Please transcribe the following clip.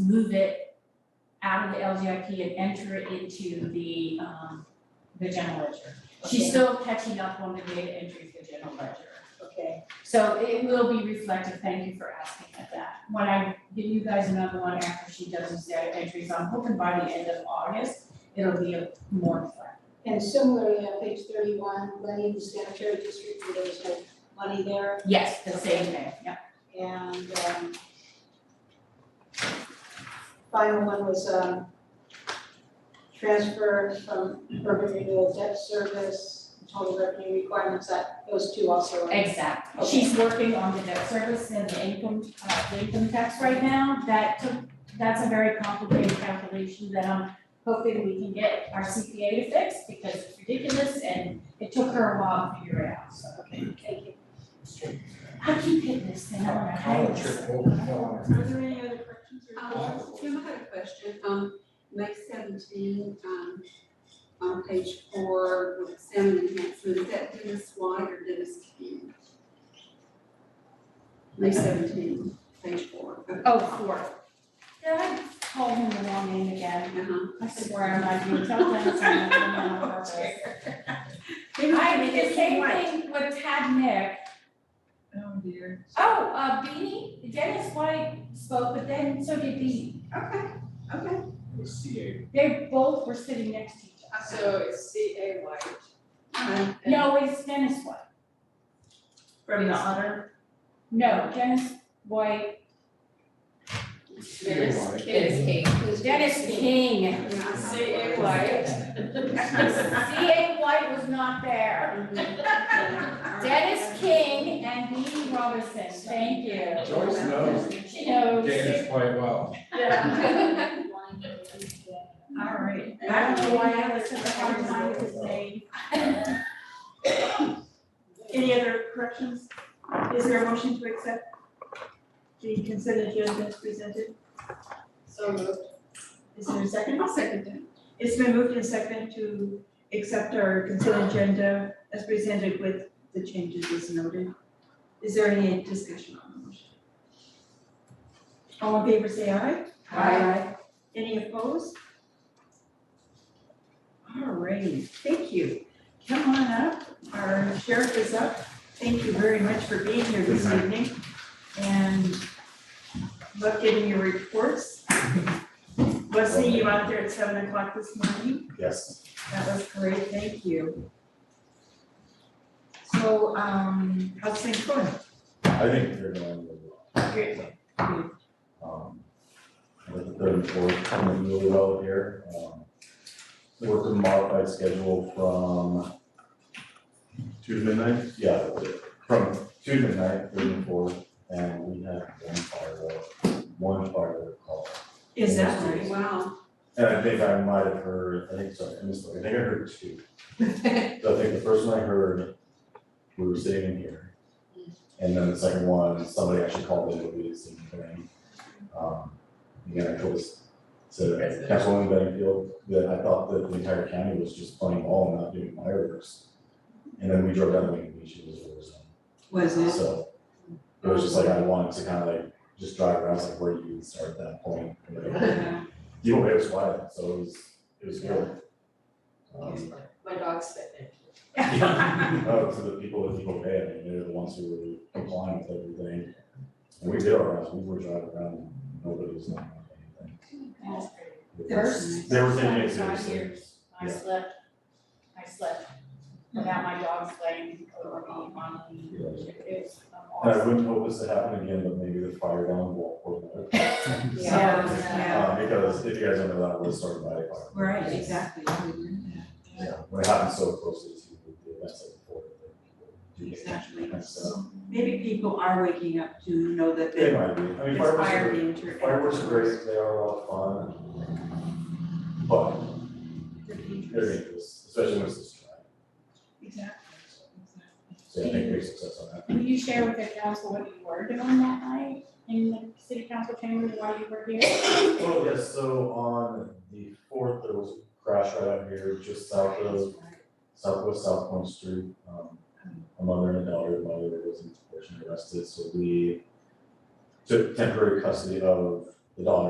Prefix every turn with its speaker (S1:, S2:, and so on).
S1: move it out of the LGIP and enter it into the, um, the general ledger. She's
S2: Okay.
S1: still catching up on the data entry for the general ledger.
S2: Okay,
S1: So it will be reflective, thank you for asking at that. When I give you guys another one after she does these data entries, I'm hoping by the end of August, it'll be a more flat.
S2: and similarly, on page thirty-one, Lenny, the sanitary district, there was no money there,
S1: Yes, the same thing, yeah.
S2: and, um, final one was, um, transfer from urban renewal debt service, total revenue requirements, that, those two also. are-
S1: Exactly. She's working on the debt service and the income, uh, the income tax right now. That took, that's a very complicated calculation that I'm hoping we can get our CPA to fix because it's ridiculous and it took her a while to figure it out, so.
S2: Okay, thank you.
S1: I keep hitting this thing, I wanna hide
S3: I'll
S1: this.
S3: trip over, no,
S2: Are there any other questions or
S4: Uh,
S5: Um, Tim, I had a question, um, May seventeen, um, on page four, with salmon enhancement, is that Dennis White or Dennis King? May seventeen, page four. okay.
S1: Oh, four. Did I call him the wrong name again?
S5: Uh-huh.
S1: I swear I'm not doing something, I'm not on purpose. I did the same thing with Tad Nick.
S4: Oh dear.
S1: Oh, uh, Beanie, Dennis White spoke, but then so did Beanie.
S4: Okay, okay.
S3: it was CA.
S1: They both were sitting next to each other.
S4: So it's C A White.
S5: Okay.
S1: No, it's Dennis White.
S4: From the honor.
S1: No, Dennis White,
S3: CA wide.
S4: Dennis King.
S1: Dennis King.
S5: Yeah, I saw
S4: C
S5: it.
S4: A White.
S1: C.A. White was not there.
S5: Mhm.
S1: Dennis King and Beanie Robinson, thank you.
S3: Joyce knows
S1: She knows.
S3: Danish quite well.
S4: All right.
S1: I don't know why I was such a hard time with his name.
S6: Any other corrections? Is there a motion to accept the consent agenda as presented?
S5: So moved.
S6: Is there a second?
S5: I'll second that.
S6: It's been moved and seconded to accept our consent agenda as presented with the changes as noted. Is there any discussion on the motion? All in favor, say aye.
S1: Aye.
S6: Any opposed? All right, thank you. Come on up, our sheriff is up. Thank you very much for being here this evening. And love getting your reports. Was seeing you out there at seven o'clock this morning.
S3: Yes.
S6: That was great, thank you. So, um, how's things going?
S3: I think they're going really well.
S6: Good.
S3: Um, I think the third and fourth coming really well here. Um, Work a modified schedule from two to midnight? Yeah, from two to midnight, three and four, and we have one firework, one firework call.
S6: Is that right?
S5: Wow.
S3: And I think I might have heard, I think, sorry, I missed, I think I heard two. So I think the first one I heard, we were sitting in here. And then the second one, somebody actually called in, we didn't see anything. Um, again, I was, so Councilwoman Bedingfield, that I thought that the entire county was just playing ball and not doing fireworks. And then we drove down to Lincoln Beach, it was a war zone.
S6: Was it?
S3: So it was just like I wanted to kind of like just drive around, I was like, where do you even start at that point? You know, it was wild, so it was, it was good. Um,
S4: My dog's sitting.
S3: yeah, oh, to the people that people pay, I mean, they're the ones who were complying with everything. And we did our rounds, we were driving around, and nobody was knocking on anything.
S1: That's great.
S3: It
S1: First
S3: was- There was any
S1: time in five
S3: exhibits.
S1: I
S3: Yeah.
S1: slept, I slept without my dogs laying over me on me.
S3: Yeah.
S1: It was um,
S3: And I
S1: awesome.
S3: wouldn't hope this to happen again, but maybe the fire down will, will,
S6: Yeah.
S3: uh, Um, because if you guys don't know that, was started by a fire.
S6: Right, exactly.
S3: Yeah, when it happens so closely to the events like before.
S6: Exactly.
S3: And so,
S6: Maybe people are waking up to know that
S3: it
S6: they
S3: might be, I mean, fireworks
S6: inspire
S3: are,
S6: danger.
S3: fireworks are great, they are a lot of fun. But
S6: They're dangerous.
S3: they're dangerous, especially when it's this dry.
S6: Exactly.
S3: So I think big success on that.
S1: Will you share with the council what you were doing that night in the city council chamber while you were here?
S3: Oh, yes, so on the fourth, there was a crash right out here, just south of, southwest South Point Street. Um, A mother and a daughter, the mother was unfortunately arrested, so we took temporary custody of the daughter.